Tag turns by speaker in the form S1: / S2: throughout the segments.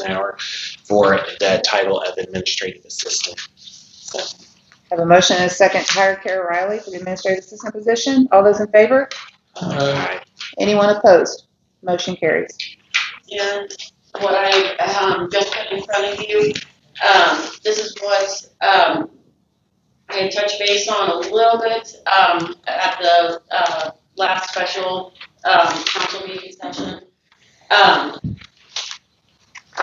S1: an hour for the title of administrative assistant. So,
S2: Have a motion and a second to hire Kara Riley for the administrative assistant position. All those in favor?
S3: Uh,
S1: aye.
S2: Anyone opposed? Motion carries.
S4: And what I, um, just put in front of you, um, this is what, um, I had touched base on a little bit, um, at the, uh, last special, um, council meeting session. Um,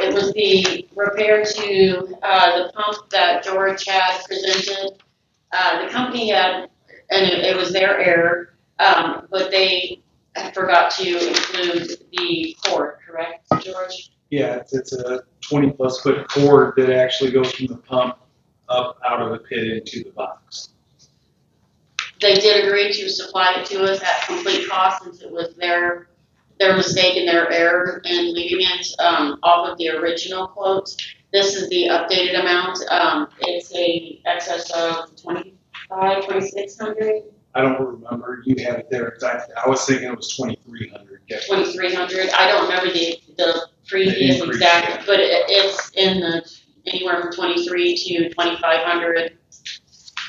S4: it was the repair to, uh, the pump that George had presented. Uh, the company had, and it, it was their error, um, but they forgot to include the cord, correct, George?
S3: Yeah, it's, it's a twenty plus foot cord that actually goes from the pump up out of the pit into the box.
S4: they did agree to supply it to us at complete cost since it was their, their mistake and their error in leaving it, um, off of the original quote. This is the updated amount, um, it's a excess of twenty-five, twenty-six hundred,
S3: I don't remember, you have it there exactly, I was thinking it was twenty-three hundred.
S4: twenty-three hundred, I don't remember the, the previous
S3: The increase, yeah.
S4: exact, but it, it's in the, anywhere from twenty-three to twenty-five hundred,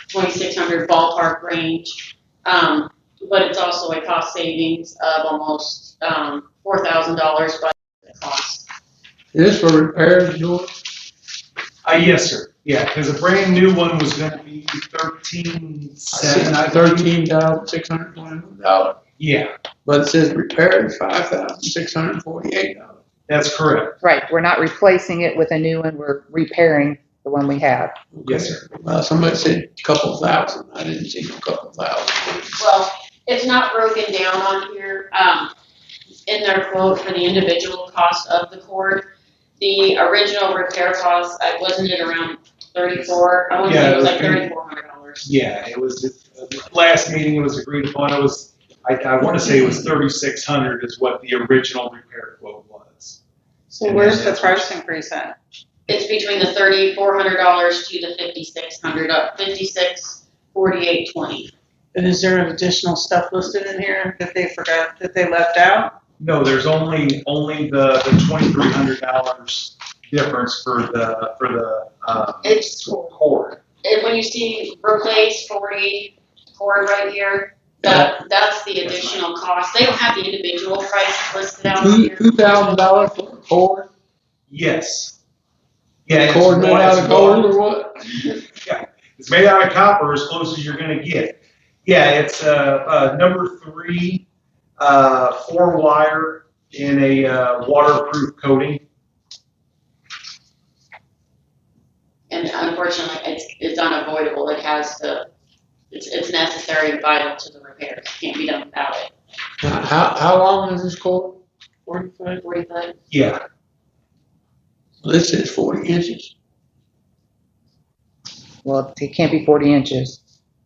S4: twenty-six hundred ballpark range. Um, but it's also a cost savings of almost, um, four thousand dollars by the cost.
S5: This for repairs, George?
S3: Uh, yes, sir, yeah, cause a brand new one was gonna be thirteen seven, I believe.
S5: Thirteen thousand six hundred twenty-one dollars,
S3: Yeah,
S5: but it says repairs, five thousand six hundred forty-eight dollars.
S3: that's correct,
S2: Right, we're not replacing it with a new one, we're repairing the one we have.
S3: yes, sir.
S5: Well, Uh, somebody said couple thousand, I didn't see no couple thousand.
S4: Well, it's not broken down on here, um, in their quote for the individual cost of the cord. The original repair cost, I wasn't it around thirty-four, I want to say it was like
S3: Yeah, it was-
S4: thirty-four hundred dollars.
S3: Yeah, it was, uh, last meeting it was agreed upon, it was, I, I wanna say it was thirty-six hundred is what the original repair quote was.
S6: So where's the price increase at?
S4: It's between the thirty-four hundred dollars to the fifty-six hundred, up fifty-six, forty-eight, twenty.
S6: And is there additional stuff listed in here that they forgot, that they left out?
S3: No, there's only, only the, the twenty-three hundred dollars difference for the, for the, um,
S4: It's,
S3: cord.
S4: and when you see replace forty cord right here, that, that's the additional cost. They don't have the individual prices listed out
S5: Two,
S4: here.
S5: two thousand dollars for a cord,
S3: Yes. Yeah, it's
S5: cord made
S3: one-
S5: out
S3: it's
S5: of gold
S3: one-
S5: or what?
S3: It's made out of copper, as close as you're gonna get. Yeah, it's, uh, uh, number three, uh, four wire in a, uh, waterproof coating.
S4: And unfortunately, it's, it's unavoidable. It has to, it's, it's necessary and vital to the repair. It Can't be done without it.
S5: Now, How, how long is this cord?
S4: Forty-five? Forty-five.
S3: Yeah,
S5: This is forty inches.
S2: Well, it can't be forty inches.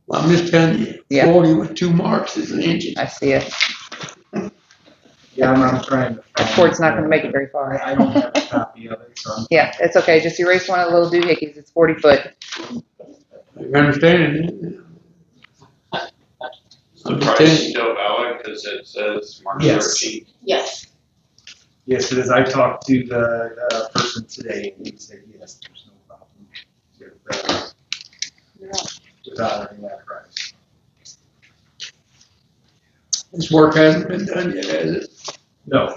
S5: Well, I'm just telling you,
S2: Yeah.
S5: forty with two marks is an inch.
S2: I see it.
S3: yeah, I'm, I'm trying to.
S2: That cord's not gonna make it very far.
S3: I I don't have a copy of it, so. I'm-
S2: Yeah, it's okay, just erase one of the little doohickeys, it's forty foot.
S5: You understand it?
S7: The price is still valid because it says March
S3: Yes.
S7: thirteenth.
S4: Yes.
S3: Yes, it is. I talked to the, the person today and he said, yes, there's no problem with, uh, with honoring that price.
S5: This work hasn't been done yet, has it?
S3: No,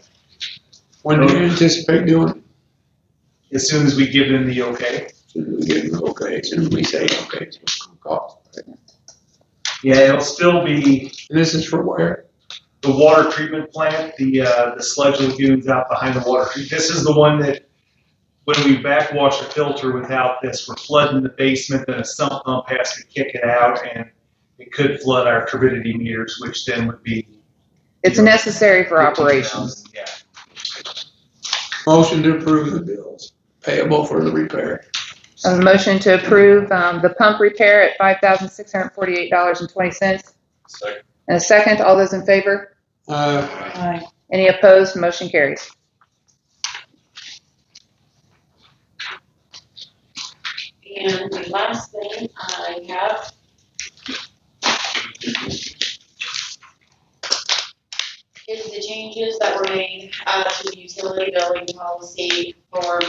S5: When do you anticipate doing it?
S3: as soon as we give them the okay.
S5: Soon as we get, okay, soon as we say, okay, it's gonna cost.
S3: Yeah, it'll still be
S5: And this is for where?
S3: the water treatment plant, the, uh, the sludge lagoons out behind the water treat. This is the one that when we backwash a filter without this, we're flooding the basement, then a sump pump has to kick it out and it could flood our turbidity meters, which then would be.
S2: It's necessary for
S3: 15,000,
S2: operations.
S3: Yeah.
S5: Motion to approve the bills payable for the repair.
S2: A motion to approve, um, the pump repair at five thousand six hundred forty-eight dollars and twenty cents.
S7: Second.
S2: And a second, all those in favor?
S5: Uh,
S6: Aye.
S2: Any opposed? Motion carries.
S4: And the last thing I have is the changes that were made, uh, to the utility billing policy form